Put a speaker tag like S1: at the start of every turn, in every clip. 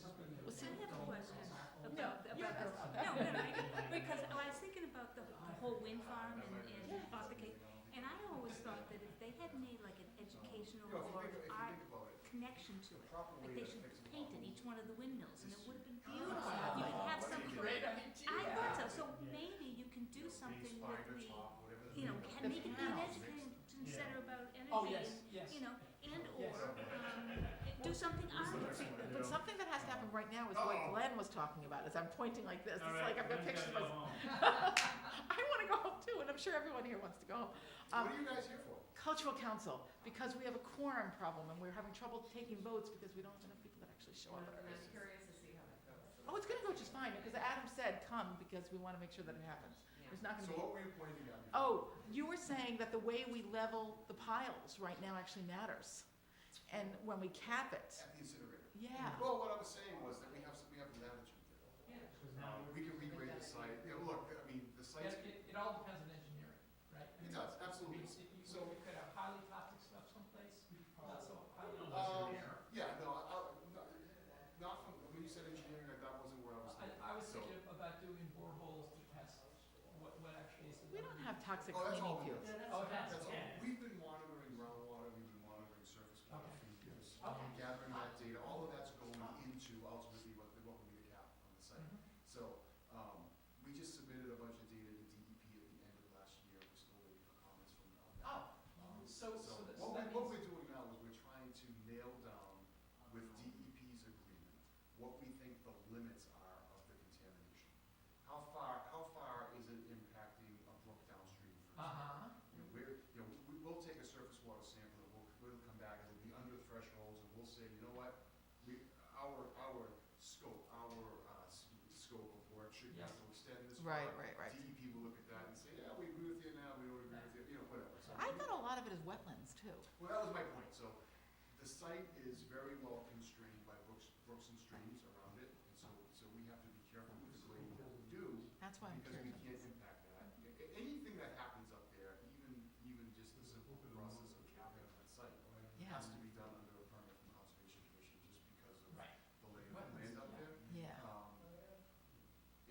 S1: I have a question.
S2: No,
S1: about-
S2: you're
S1: about-
S2: welcome.
S1: No, no, no, I- because I was thinking about the the whole wind farm and, and Arthur K. And I always thought that if they had made like an educational
S3: You know, if you
S1: or
S3: think, if you
S1: art
S3: think about it,
S1: connection to
S3: the
S1: it,
S3: proper
S1: like
S3: way
S1: they
S3: to
S1: should
S3: fix a
S1: paint in
S3: problem-
S1: each one of the windmills and it would have been
S2: Ah,
S1: beautiful. You could have
S3: what a
S1: some,
S3: great
S1: I thought so, so
S4: Yeah.
S1: maybe you can do
S3: base
S1: something with
S3: fiber
S1: the,
S3: top, whatever the
S1: you know, can
S3: thing is.
S1: make it be an
S3: Yeah.
S1: education
S4: Yeah.
S1: center about energy.
S2: Oh, yes, yes.
S1: You know, and
S2: Yes.
S1: or, um, it- do something arty.
S5: But something that has to happen right now is what
S3: Uh-oh.
S5: Glenn was talking about, is I'm pointing like this,
S4: All
S5: it's
S4: right,
S5: like I've got
S4: Glenn's gotta
S5: pictures of
S4: go
S5: myself.
S4: home.
S5: I wanna go home too, and I'm sure everyone here wants to go home.
S3: What
S5: Um,
S3: are you guys here for?
S5: Cultural Council, because we have a quorum problem and we're having trouble taking votes because we don't have enough people that actually show up.
S2: I'm
S3: curious
S2: to see how that goes.
S5: Oh, it's gonna go just fine, because Adam said come, because we wanna make sure that it happens. There's not gonna
S3: So
S5: be,
S3: what were you pointing at? before?
S5: oh, you were saying that the way we level the piles right now actually matters. And when we cap it,
S3: At the incinerator.
S5: yeah.
S3: Well, what I was saying was that we have, some- we have an attitude there.
S4: Because now
S3: Um,
S4: we're-
S3: We can regrade the site, you know, look, I mean, the
S2: It,
S3: site's,
S2: it, it all depends on engineering, right? I
S3: it
S2: mean,
S3: does,
S2: if
S3: absolutely.
S2: you- if you-
S3: So-
S2: we could have highly toxic stuff someplace, not so highly
S4: Um,
S3: Um,
S2: toxic.
S3: yeah, no, I, I- not, not from, when you said engineering, that- that wasn't where I was
S2: I,
S3: thinking.
S2: I was
S3: So-
S2: thinking about doing boreholes to test what, what actually is.
S5: We don't have toxic
S3: Oh, that's all
S5: cleaning fuels.
S3: we
S2: Oh, that's,
S3: That's all,
S4: Yeah.
S3: we've been monitoring groundwater, we've been monitoring surface water for years.
S2: Okay.
S3: Gathering that data, all of that's going into ultimately what, the- what we need to cap on the site.
S2: Mhm.
S3: So, um, we just submitted a bunch of data to DEP at the end of last year, we're still waiting for comments from on that.
S2: Oh,
S3: Um,
S2: so, so that, so
S3: What we,
S2: that
S3: what
S2: means.
S3: we're doing now is we're trying to nail down with DEP's agreement, what we think the limits are of the contamination. How far, how far is it impacting a brook downstream, for example?
S2: Uh-huh,
S3: You know, we're, you know, we, we'll take a surface water sample, and we'll, we'll come back, it'll be under thresholds, and we'll say, you know what? We, our, our scope, our, uh, s- scope of work should
S2: Yeah.
S3: have to extend this far.
S5: Right, right, right.
S3: DEP will look at that and say, yeah, we agree with you now, we don't agree with you, you know, whatever. So
S5: I
S3: we-
S5: thought a lot of it is wetlands too.
S3: well, that was my point, so the site is very well constrained by brooks, brooks and streams around it, and so, so we have to be careful with the grading that we do,
S5: That's why I'm
S3: because
S5: curious.
S3: we can't impact that. A- a- Anything that happens up there, even, even just the simple process of capping on site,
S5: Yeah.
S3: has to be done under a permit from Conservation Commission, just because of
S2: right.
S3: the lay of the land up
S2: Wetlands, yeah.
S3: there.
S5: Yeah.
S3: Um,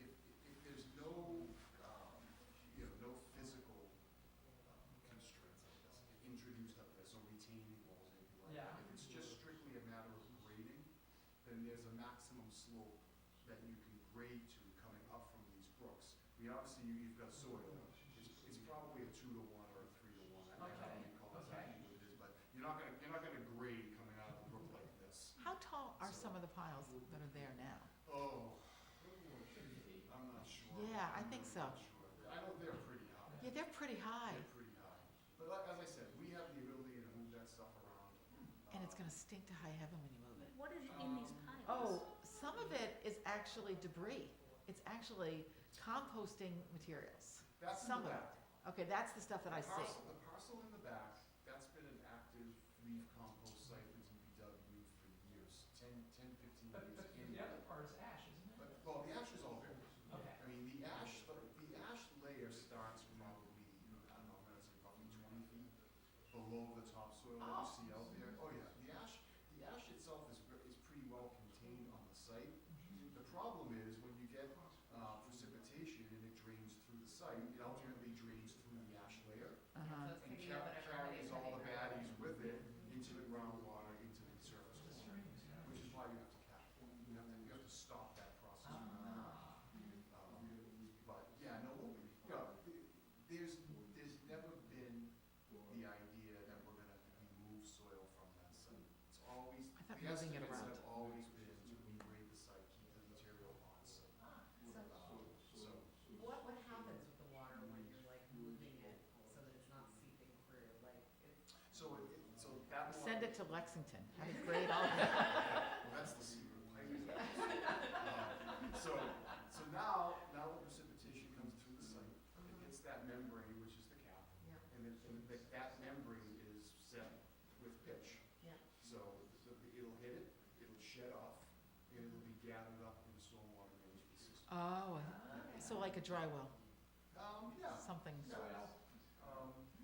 S3: if, if there's no, um, you know, no physical um, constraints, I guess, introduced up there, so retaining walls, anything like that.
S2: Yeah.
S3: If it's just strictly a matter of grading, then there's a maximum slope that you can grade to coming up from these brooks. I mean, obviously, you- you've got soil, it's, it's probably a two to one or a three to one, I don't know how
S2: Okay,
S3: you call it,
S2: okay.
S3: exactly what it is, but you're not gonna, you're not gonna grade coming out of a brook like this.
S5: How tall are some of the piles that are there now?
S3: Oh,
S2: feet.
S3: I'm not sure.
S5: Yeah, I
S3: I'm
S5: think
S3: really
S5: so.
S3: not sure. I know they're pretty high.
S5: Yeah, they're pretty high,
S3: They're pretty high. But like, as I said, we have the ability to move that stuff around.
S5: and it's
S3: uh,
S5: gonna stink to high heaven when you move it.
S1: What is in these piles?
S5: Oh, some of it is actually debris. It's actually composting materials.
S3: That's in
S5: some of
S3: the
S5: it
S3: back.
S5: Okay, that's the stuff that I
S3: The
S5: see.
S3: parcel- The parcel in the back, that's been an active leaf compost site for DPW for years, 10, 10, 15
S2: But,
S3: years.
S2: but
S3: in
S2: the
S3: there.
S2: other part is ash, isn't it?
S3: But, well, the ash is all there.
S2: Okay.
S3: I mean, the ash, the ash layer starts probably, you know, I don't know, I'm gonna say probably twenty feet below the topsoil that you
S2: Oh.
S3: see out there. Oh, yeah, the ash, the ash itself is, ver- is pretty well contained on the site.
S2: Mm-hmm.
S3: The problem is when you get, uh, precipitation and it drains through the site, it ultimately drains through the ash layer
S5: Uh-huh.
S3: and ca- carries all the baddies with it into the groundwater, into the surface water, which is why you have to cap. it. You have to, you have to stop that process from happening.
S2: Ah,
S3: Um, But, yeah, no, we'll, you know, th- there's, there's never been the idea that we're gonna remove soil from that site. It's always,
S5: I
S3: the
S5: thought moving it
S3: estimates
S5: around.
S3: have always been to regrade the site, keep the material on site. Um, So,
S6: What, what happens with the water when you're like moving it so that it's not seeping through, like it?
S3: so, it- it- so that water.
S5: Send it to Lexington, have it grade all that.
S3: Well, that's the secret plan. Um, So, so now, now the precipitation comes through the site, it hits that membrane, which is the cap,
S6: Yeah,
S3: and then, and that, that membrane is set with pitch.
S6: Yeah.
S3: So, the- the- it'll hit it, it'll shed off, and it'll be gathered up in the
S2: Ah.
S3: stormwater management system.
S5: Oh,
S2: okay.
S5: so like a dry well,
S3: Um, yeah, Um,
S5: something.
S3: yeah,